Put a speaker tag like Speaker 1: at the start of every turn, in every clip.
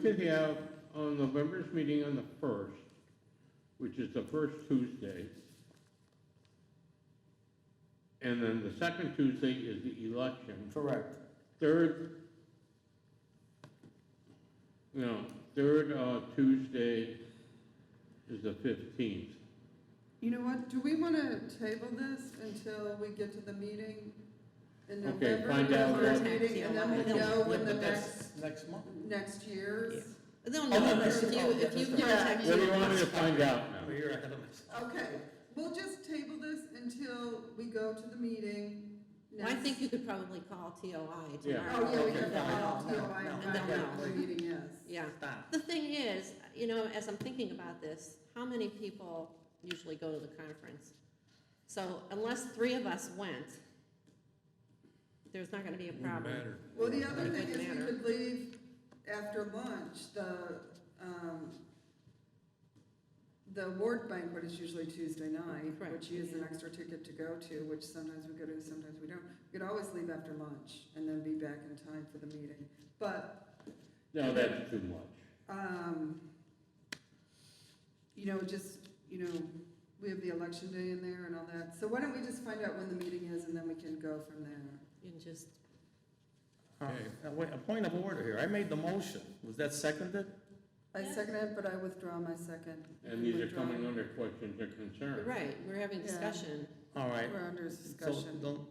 Speaker 1: could have on November's meeting on the first, which is the first Tuesday. And then the second Tuesday is the election.
Speaker 2: Correct.
Speaker 1: Third, no, third, uh, Tuesday is the fifteenth.
Speaker 3: You know what, do we wanna table this until we get to the meeting in
Speaker 1: Okay,
Speaker 3: November?
Speaker 1: find
Speaker 3: the
Speaker 1: out
Speaker 3: first
Speaker 4: what-
Speaker 3: meeting, And then we'll know when the
Speaker 2: But
Speaker 3: next,
Speaker 2: that's next month.
Speaker 3: next year's.
Speaker 4: They'll
Speaker 2: Oh, no,
Speaker 4: know
Speaker 2: that's-
Speaker 4: if you,
Speaker 2: oh, yeah,
Speaker 4: if you
Speaker 2: that's right.
Speaker 4: contact
Speaker 1: What do you
Speaker 4: me.
Speaker 1: want me to find out now?
Speaker 2: Well, you're ahead of us.
Speaker 3: Okay, we'll just table this until we go to the meeting
Speaker 4: Well, I
Speaker 3: next-
Speaker 4: think you could probably call TOI
Speaker 1: Yeah.
Speaker 4: tomorrow.
Speaker 3: Oh, yeah, we
Speaker 2: Okay,
Speaker 3: can
Speaker 2: no,
Speaker 3: call
Speaker 2: no,
Speaker 3: TOI
Speaker 2: no,
Speaker 3: and
Speaker 4: no,
Speaker 3: find out
Speaker 4: no.
Speaker 3: what the meeting is.
Speaker 4: Yeah.
Speaker 2: Stop.
Speaker 4: The thing is, you know, as I'm thinking about this, how many people usually go to the conference? So unless three of us went, there's not gonna be a problem.
Speaker 3: Well, the other
Speaker 4: It
Speaker 3: thing is
Speaker 4: wouldn't
Speaker 3: we
Speaker 4: matter.
Speaker 3: could leave after lunch, the, um, the award banquet is usually Tuesday night,
Speaker 4: Correct,
Speaker 3: which is an
Speaker 4: yeah.
Speaker 3: extra ticket to go to, which sometimes we go to, sometimes we don't. We could always leave after lunch and then be back in time for the meeting. But,
Speaker 1: No, that's too much.
Speaker 3: um, you know, just, you know, we have the election day in there and all that. So why don't we just find out when the meeting is and then we can go from there?
Speaker 4: You can just,
Speaker 2: Uh, Wait, a point of order here. I made the motion. Was that seconded?
Speaker 3: I
Speaker 4: Yeah.
Speaker 3: second it, but I withdraw my second.
Speaker 1: And these are
Speaker 3: Withdraw.
Speaker 1: coming under questions or concerns.
Speaker 4: right, we're having
Speaker 3: Yeah.
Speaker 4: discussion.
Speaker 2: All right.
Speaker 3: We're under
Speaker 2: So
Speaker 3: discussion.
Speaker 2: don't,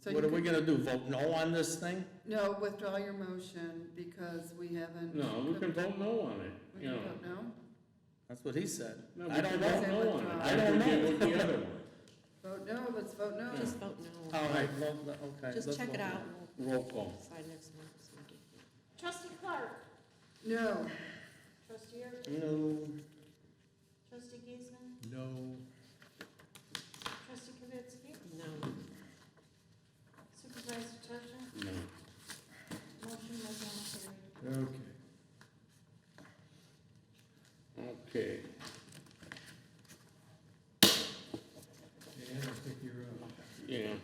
Speaker 3: So
Speaker 2: what
Speaker 3: you
Speaker 2: are we
Speaker 3: could-
Speaker 2: gonna do? Vote no on this thing?
Speaker 3: No, withdraw your motion because we haven't.
Speaker 1: No, we can vote no on it,
Speaker 3: We
Speaker 1: you
Speaker 3: can
Speaker 1: know.
Speaker 3: vote no?
Speaker 2: That's what he said.
Speaker 1: No, we
Speaker 2: I don't
Speaker 1: can
Speaker 2: know.
Speaker 1: vote no on it.
Speaker 3: I
Speaker 1: That's
Speaker 2: don't
Speaker 1: what
Speaker 2: know.
Speaker 1: you did with the other one.
Speaker 3: Vote no, let's vote no.
Speaker 4: Just vote no.
Speaker 2: All right, well, no, okay.
Speaker 4: Just
Speaker 2: let's
Speaker 4: check it
Speaker 2: vote.
Speaker 4: out.
Speaker 1: Roll
Speaker 4: We'll
Speaker 1: call.
Speaker 4: decide next month. It's no big deal.
Speaker 5: Trustee Clark,
Speaker 3: No,
Speaker 5: trustee Erb,
Speaker 2: No,
Speaker 5: trustee Giesman,
Speaker 6: No.
Speaker 5: trustee Kavitsky,
Speaker 4: No.
Speaker 5: supervisor Tusher,
Speaker 1: No.
Speaker 5: motion was not carried.
Speaker 6: Okay.
Speaker 1: Okay.
Speaker 6: Dan, I think you're up.
Speaker 1: Yeah,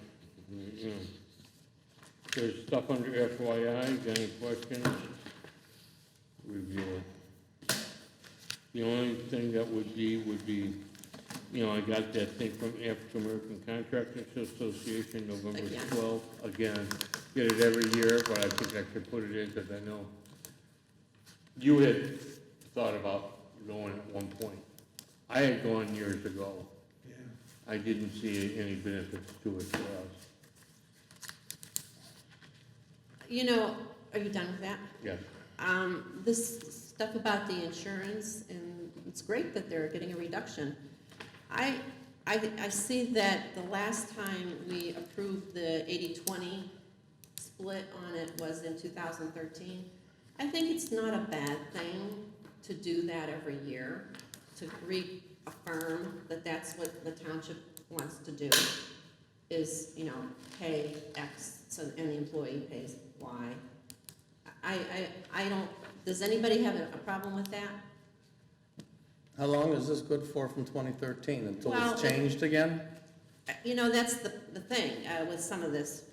Speaker 1: yeah. There's stuff under FYI, got any questions? Review it. The only thing that would be, would be, you know, I got that thing from African American Contractors Association, November
Speaker 4: Again.
Speaker 1: twelfth, again. Get it every year, but I think I should put it in, because I know you had thought about going at one point. I had gone years ago.
Speaker 6: Yeah.
Speaker 1: I didn't see any benefits to it for us.
Speaker 4: You know, are you done with that?
Speaker 1: Yes,
Speaker 4: Um, this stuff about the insurance, and it's great that they're getting a reduction. I, I, I see that the last time we approved the 80-20 split on it was in two thousand thirteen. I think it's not a bad thing to do that every year, to reaffirm that that's what the township wants to do, is, you know, pay X, so any employee pays Y. I, I, I don't, does anybody have a a problem with that?
Speaker 2: How long is this good for from 2013? Until
Speaker 4: Well,
Speaker 2: it's changed again?
Speaker 4: Uh, You know, that's the, the thing uh, with some of this,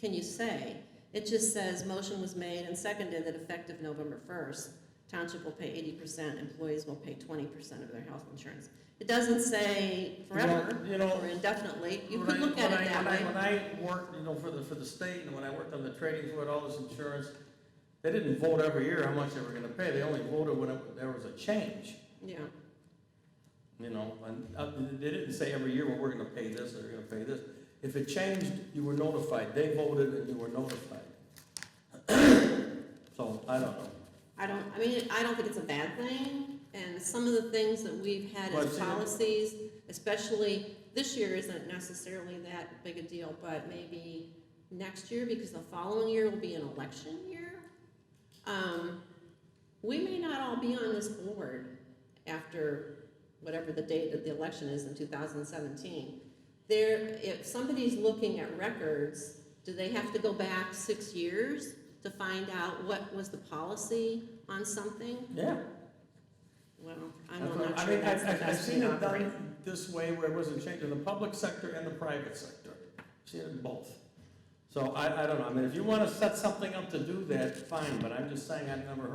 Speaker 4: can you say? It just says, motion was made and seconded that effective November first, township will pay eighty percent, employees will pay twenty percent of their health insurance. It doesn't say forever
Speaker 2: You know- you know-
Speaker 4: or indefinitely, you
Speaker 2: When
Speaker 4: could
Speaker 2: I-
Speaker 4: look at
Speaker 2: when
Speaker 4: it
Speaker 2: I-
Speaker 4: that way.
Speaker 2: When I when I worked, you know, for the, for the state, and when I worked on the trading for it, all this insurance, they didn't vote every year how much they were gonna pay, they only voted when it- there was a change,
Speaker 4: Yeah,
Speaker 2: you know, and, uh, they didn't say every year, well, we're gonna pay this, or we're gonna pay this. If it changed, you were notified, they voted and you were notified. So, I don't know.
Speaker 4: I don't, I mean, I don't think it's a bad thing, and some of the things that we've had
Speaker 2: Well,
Speaker 4: as
Speaker 2: it's-
Speaker 4: policies, especially, this year isn't necessarily that big a deal, but maybe next year, because the following year will be an election year. Um, we may not all be on this board after whatever the date of the election is in two thousand seventeen. There, if somebody's looking at records, do they have to go back six years to find out what was the policy on something?
Speaker 2: Yeah.
Speaker 4: Well, I'm
Speaker 2: That's
Speaker 4: not
Speaker 2: what-
Speaker 4: sure.
Speaker 2: I mean,
Speaker 4: that's
Speaker 2: I've,
Speaker 4: the
Speaker 2: I've, I've
Speaker 4: best way
Speaker 2: seen
Speaker 4: to
Speaker 2: it
Speaker 4: operate.
Speaker 2: done this way where it wasn't changed in the public sector and the private sector. Seen it in both. So I, I don't know, I mean, if you wanna set something up to do that, fine, but I'm just saying I've never heard